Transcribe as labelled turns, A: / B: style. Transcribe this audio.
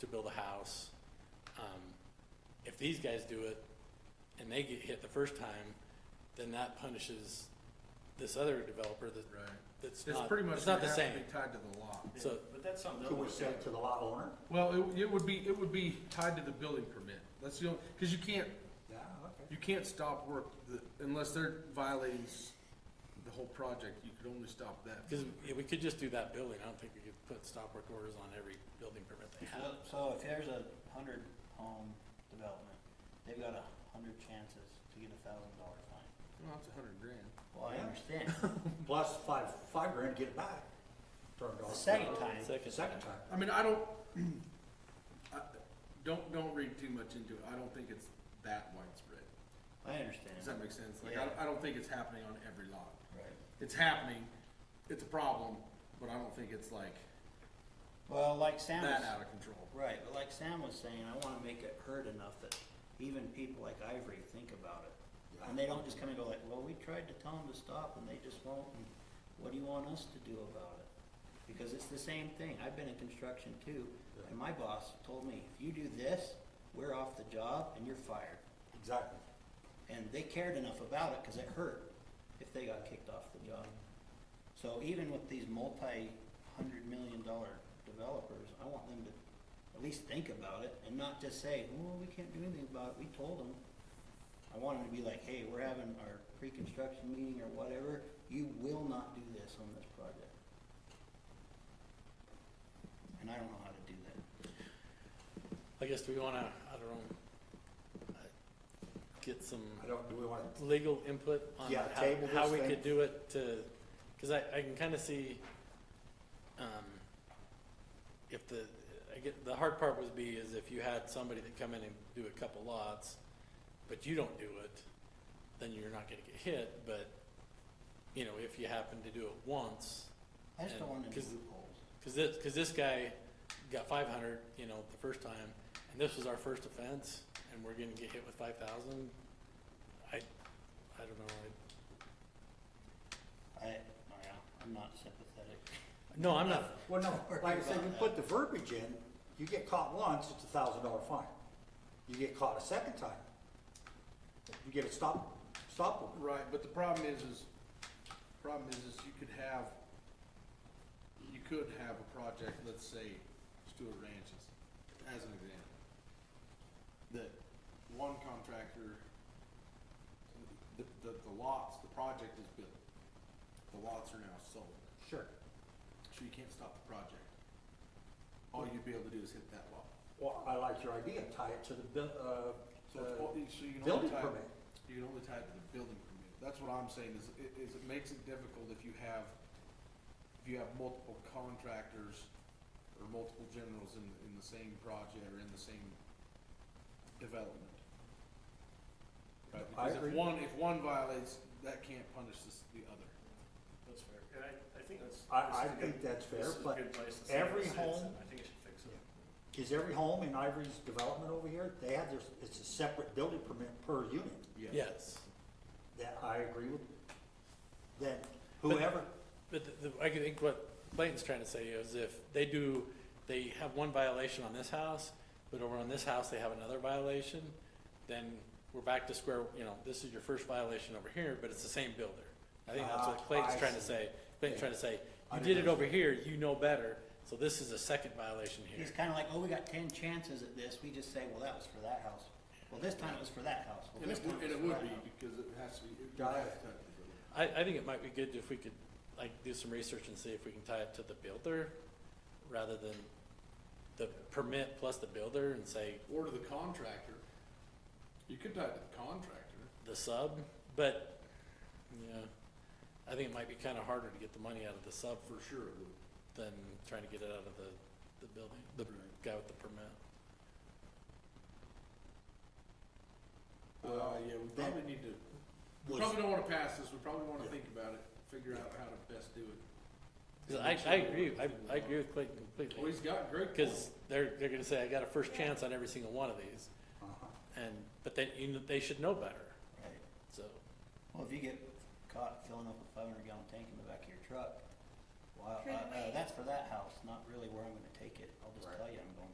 A: to build a house. Um, if these guys do it and they get hit the first time, then that punishes this other developer that,
B: Right.
A: that's
B: It's
A: not,
B: pretty much
A: Uh, it's not
B: gonna
A: the
B: have
A: same.
B: to be tied to the lot.
A: So-
C: But that's something they'll
D: Can we
C: work
D: say
C: out.
D: to the lot owner?
B: Well, it, it would be, it would be tied to the building permit. That's the only, cause you can't,
D: Yeah, okay.
B: you can't stop work the- unless they're violating s- the whole project. You could only stop that.
A: Because we could just do that building, I don't think we could put stop work orders on every building permit they have.
E: So- So if there's a hundred home development, they've got a hundred chances to get a thousand dollar fine.
B: Well, that's a hundred grand.
E: Well, I
D: Yeah.
E: understand,
D: Plus five, five grand to get it back. Turned
E: the
D: off.
E: second time,
D: The Second time.
B: I mean, I don't, I, don't, don't read too much into it. I don't think it's that widespread.
E: I understand.
B: Does that make sense? Like, I, don't- I don't think it's happening on every lot.
E: Right.
B: It's happening, it's a problem, but I don't think it's like
E: Well, like Sam
B: that
E: was,
B: out of control.
E: right, but like Sam was saying, I wanna make it heard enough that even people like Ivory think about it. And they don't just come and go like, well, we tried to tell them to stop and they just won't, and what do you want us to do about it? Because it's the same thing, I've been in construction too, and my boss told me, if you do this, we're off the job and you're fired.
D: Exactly.
E: And they cared enough about it, cause it hurt if they got kicked off the job. So even with these multi-hundred million dollar developers, I want them to at least think about it and not just say, well, we can't do anything about it, we told them. I want them to be like, hey, we're having our pre-construction meeting or whatever, you will not do this on this project. And I don't know how to do that.
A: I guess do we wanna, I don't know, uh, get some
D: I don't, do we want,
A: legal input on
D: Yeah,
A: how,
D: table
A: how
D: this
A: we
D: thing.
A: could do it to, cause I, I can kinda see, um, if the, I get, the hard part would be is if you had somebody that come in and do a couple lots, but you don't do it, then you're not gonna get hit, but, you know, if you happen to do it once,
E: I just don't
A: And-
E: want any
A: 'cause-
E: loopholes.
A: Cause this, cause this guy got five hundred, you know, the first time, and this was our first offense, and we're gonna get hit with five thousand. I, I don't know, I,
E: I, oh, yeah, I'm not sympathetic.
A: no, I'm not,
D: well, no,
E: Don't worry
D: like I said,
E: about
D: you
E: that.
D: put the verbiage in, you get caught once, it's a thousand dollar fine. You get caught a second time, you get a stop, stop order.
B: Right, but the problem is, is, problem is, is you could have, you could have a project, let's say Stewart Ranches, as an example. That one contractor, the, the, the lots, the project is built, the lots are now sold,
D: Sure.
B: so you can't stop the project. All you'd be able to do is hit that lot.
D: Well, I like your idea, tie it to the, bu- uh,
B: So it's,
D: uh,
B: all- so you can only
D: building
B: tie,
D: permit.
B: you can only tie it to the building permit. That's what I'm saying is, i- is it makes it difficult if you have, if you have multiple contractors or multiple generals in, in the same project or in the same development. Right,
D: I
B: because if
D: agree.
B: one, if one violates, that can't punish this, the other.
C: That's fair, and I, I think that's.
D: I- I
C: this is a
D: think
C: good-
D: that's fair,
C: this is a
D: but
C: good place to say
D: every
C: this is, and
D: home-
C: I think it should fix it.
D: Is every home in Ivory's development over here, they have their, it's a separate building permit per unit.
A: yes.
D: That I agree with. That whoever,
A: But the, the- I could think what Clayton's trying to say is if they do, they have one violation on this house, but over on this house, they have another violation, then we're back to square, you know, this is your first violation over here, but it's the same builder. I think that's what
D: Ah,
A: Clayton's
D: I
A: trying to
D: see.
A: say. Clayton's trying to say,
D: I
A: you
D: didn't
A: did it over here, you know better, so this is a second violation here.
E: He's kinda like, oh, we got ten chances at this, we just say, well, that was for that house. Well, this time it was for that house. Well,
B: And
E: this
B: it
E: time
B: would, and it
E: was for
B: would
E: that
B: be
E: house.
B: because it has to be, it
D: Got
B: would have
D: it.
B: to tie it to the building.
A: I, I think it might be good if we could, like, do some research and see if we can tie it to the builder rather than the permit plus the builder and say,
B: Or to the contractor. You could tie it to the contractor.
A: the sub, but, yeah, I think it might be kinda harder to get the money out of the sub
B: For sure it would.
A: than trying to get it out of the, the building, the
B: Right.
A: guy with the permit.
B: Uh, yeah, we
D: that
B: probably need to, we
D: was-
B: probably don't wanna pass this, we probably wanna
D: Yeah.
B: think about it, figure out how to best do it.
A: 'Cause I, I agree, I, I agree with Clayton
B: Well,
A: completely,
B: he's got great points.
A: cause they're, they're gonna say, I got a first chance on every single one of these,
D: Uh-huh.
A: and, but they, you, know, they should know better,
E: Right.
A: so.
E: Well, if you get caught filling up a five hundred gallon tank in the back of your truck, well, uh,
F: Prove
E: uh,
F: it.
E: that's for that house, not really where I'm gonna take it. I'll just
D: Right.
E: tell you I'm going